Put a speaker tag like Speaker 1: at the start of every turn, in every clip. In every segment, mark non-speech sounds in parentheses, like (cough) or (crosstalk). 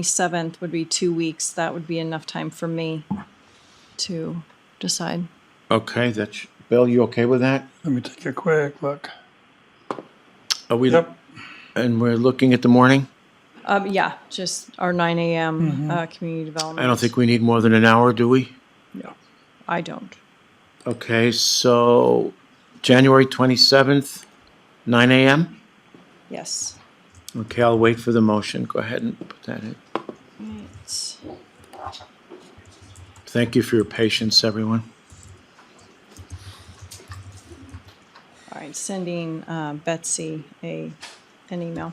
Speaker 1: twenty-seventh would be two weeks. That would be enough time for me to decide.
Speaker 2: Okay, that's, Bill, you okay with that?
Speaker 3: Let me take a quick look.
Speaker 2: Are we,
Speaker 3: Yep.
Speaker 2: and we're looking at the morning?
Speaker 1: Um, yeah, just our nine AM, uh, community development.
Speaker 2: I don't think we need more than an hour, do we?
Speaker 3: Yeah.
Speaker 1: I don't.
Speaker 2: Okay, so January 27th, nine AM?
Speaker 1: Yes.
Speaker 2: Okay, I'll wait for the motion. Go ahead and put that in.
Speaker 1: It's-
Speaker 2: Thank you for your patience, everyone.
Speaker 1: All right, sending uh, Betsy a, an email.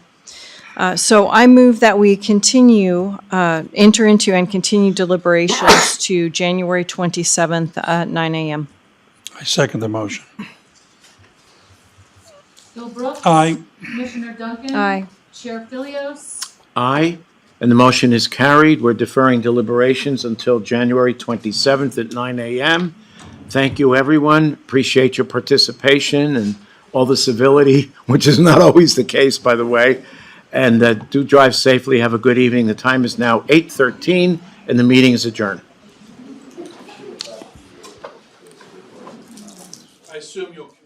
Speaker 1: Uh, So I move that we continue, uh, enter into and continue deliberations to January 27th at nine AM.
Speaker 3: I second the motion.
Speaker 4: Bill Brooks.
Speaker 3: Aye.
Speaker 4: Commissioner Duncan.
Speaker 1: Aye.
Speaker 4: Chair Philios.
Speaker 2: Aye, and the motion is carried. We're deferring deliberations until January 27th at 9 a.m. Thank you, everyone. Appreciate your participation and all the civility, (laughs) which is not always the case, by the way. And uh, do drive safely. Have a good evening. The time is now 8:13, and the meeting is adjourned.
Speaker 5: I assume you'll